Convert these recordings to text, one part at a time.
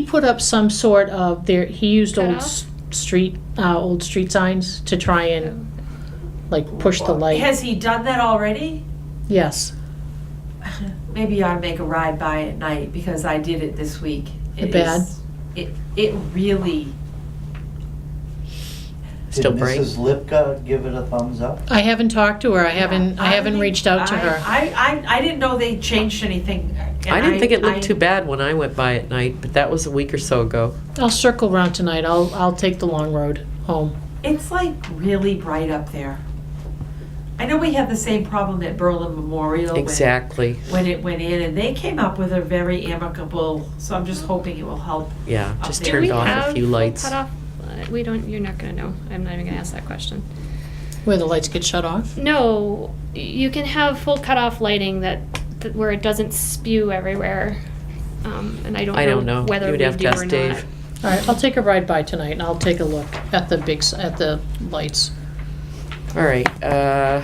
put up some sort of there, he used old Cutoff? s- street, uh, old street signs to try and like push the light. Has he done that already? Yes, Maybe you ought to make a ride by at night because I did it this week. It Bad. is- It, it really, still bright. Did Mrs. Lipka give it a thumbs up? I haven't talked to her, I haven't, I haven't think- reached out to I- her. I, I, I didn't know they changed anything. and I didn't think it looked I- too bad when I went by at night, but that was a week or so ago. I'll circle around tonight, I'll, I'll take the long road home. It's like really bright up there. I know we had the same problem at Berlin Memorial. when- Exactly. When it went in and they came up with a very amicable, so I'm just hoping it will help. Yeah, Up just there. Do we turned off have a few full lights. cutoff? Uh, We don't, you're not gonna know. I'm not even gonna ask that question. Where the lights get shut off? No, you can have full cutoff lighting that, that where it doesn't spew everywhere. Um, and I don't know I don't know. whether You would we have to do ask or Dave. not. All right, I'll take a ride by tonight and I'll take a look at the big, s- at the lights. All right, uh,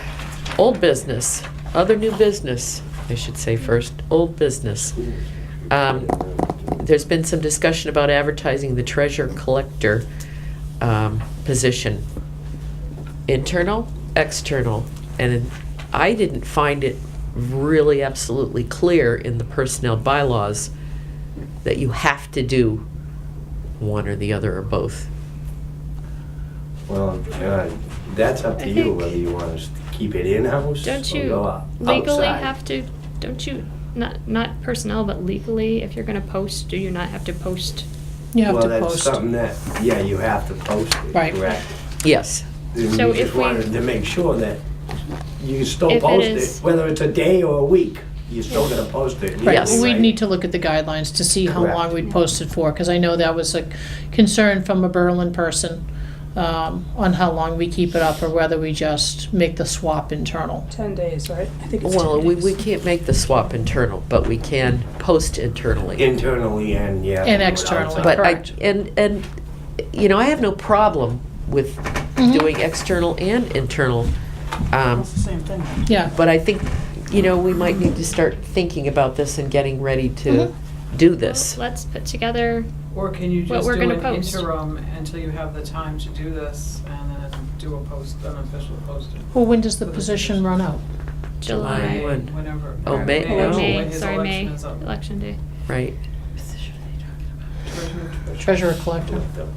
old business, other new business, I should say first, old business. Um, There's been some discussion about advertising the treasure collector um, position. Internal, external, and I didn't find it really absolutely clear in the personnel bylaws that you have to do one or the other or both. Well, uh, that's up I to you think- whether you want to keep it in-house Don't or you go out- legally outside. have to, don't you, not, not personnel, but legally, if you're gonna post, do you not have to post? You have to Well, that's post. something that, yeah, you have to post it, Right. correct? Yes, And So you if just we- wanted to make sure that you can still If it post is- it, whether it's a day or a week, you're still gonna post it. Right, Yes. well, legally, we'd right? need to look at the guidelines to see how long Correct. we'd posted for, because I know that was a concern from a Berlin person um, on how long we keep it up, or whether we just make the swap internal. 10 days, right? I think it's 10 well, we, days. we can't make the swap internal, but we can post internally. Internally and, yeah. And go externally, outside. But I, Correct. and, and, you know, I have no problem with Mm-hmm. doing external and internal. um, It's the same thing. Yeah, But I think, you know, we might need to start thinking about this and getting ready Mm-hmm. to do this. Well, Let's put together, Or can you What just we're do gonna an post. interim until you have the time to do this and then do a post, an official posting? well, when does the position run out? July. July one, Whenever. Oh, or May- when no. May, his sorry, May, election is up. election day. right. Treasurer- Treasurer collector. So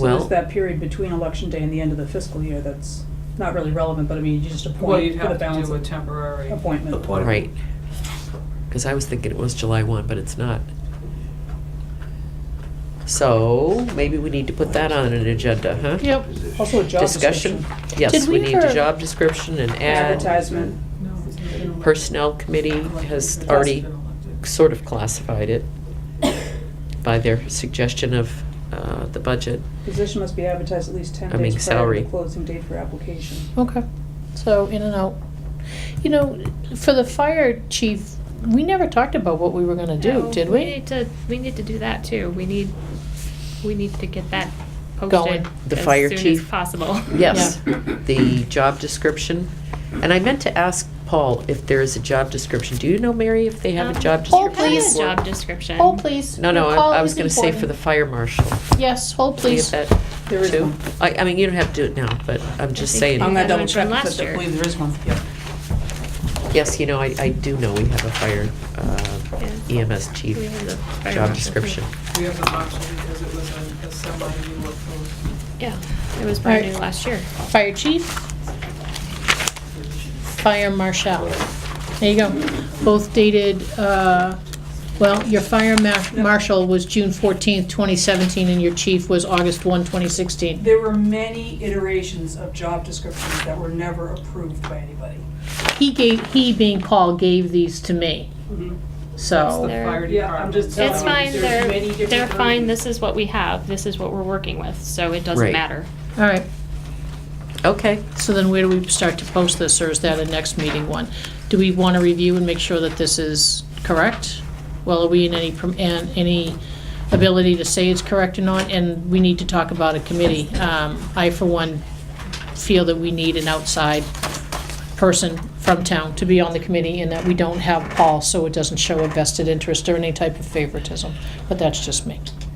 Well, it's that period between election day and the end of the fiscal year that's not really relevant, but I mean, you just Well, you'd appoint for the have to balance do a of temporary. appointment. Appointment. right. Because I was thinking it was July one, but it's not. So maybe we need to put that on an agenda, huh? Yep. Position. Also a job description. Discussion? Yes, Did we we need a ever- job description and ad. Advertisement. No, it's not an election. Personnel committee has Elected. already Been elected. sort of classified it by their suggestion of uh, the budget. Position must be advertised at least 10 I mean, days prior to salary. the closing date for application. Okay, so in and out. You know, for the fire chief, we never talked about what we were gonna do, No, did We we? need to, we need to do that too. We need, we need to get that Going. posted The fire as soon as chief. possible. Yes, the job description. And I meant to ask Paul if there is a job description. Do you know, Mary, if they have a Um, job Oh, description? Have a please. Job description. Hold, please. No, no, Your call I I was is gonna say for the important. fire marshal. Yes, hold, please. Do you have There that is too? one. I, I mean, you don't have to do it now, but I'm just think- saying. I'm That gonna double one from check, last but I year. believe there is one, yeah. Yes, you know, I, I do know we have a fire uh, Yeah. EMS chief We have the fire marshal, job too. description. We have the option because it was a a semi-new post. Yeah, it was brand Alright. new last year. Fire chief. Fire marshal. There you go. Both dated, uh, well, your fire ma- marshal was June 14th, 2017, and your chief was August 1, 2016. There were many iterations of job descriptions that were never approved by anybody. He gave, he being Paul, gave these to me. Mhm. That's the So, They're- fire Yeah, I'm department. just telling It's you, fine, there's they're, um, many different they're fine, versions. this is what we have, this is what we're working with, so it doesn't Right. matter. all right. Okay, So then where do we start to post this, or is that a next meeting one? Do we want to review and make sure that this is correct? Well, are we in any, prom- and any ability to say it's correct or not? And we need to talk about a committee. Um, I, for one, feel that we need an outside person from town to be on the committee, and that we don't have Paul, so it doesn't show a vested interest or any type of favoritism. But that's just me.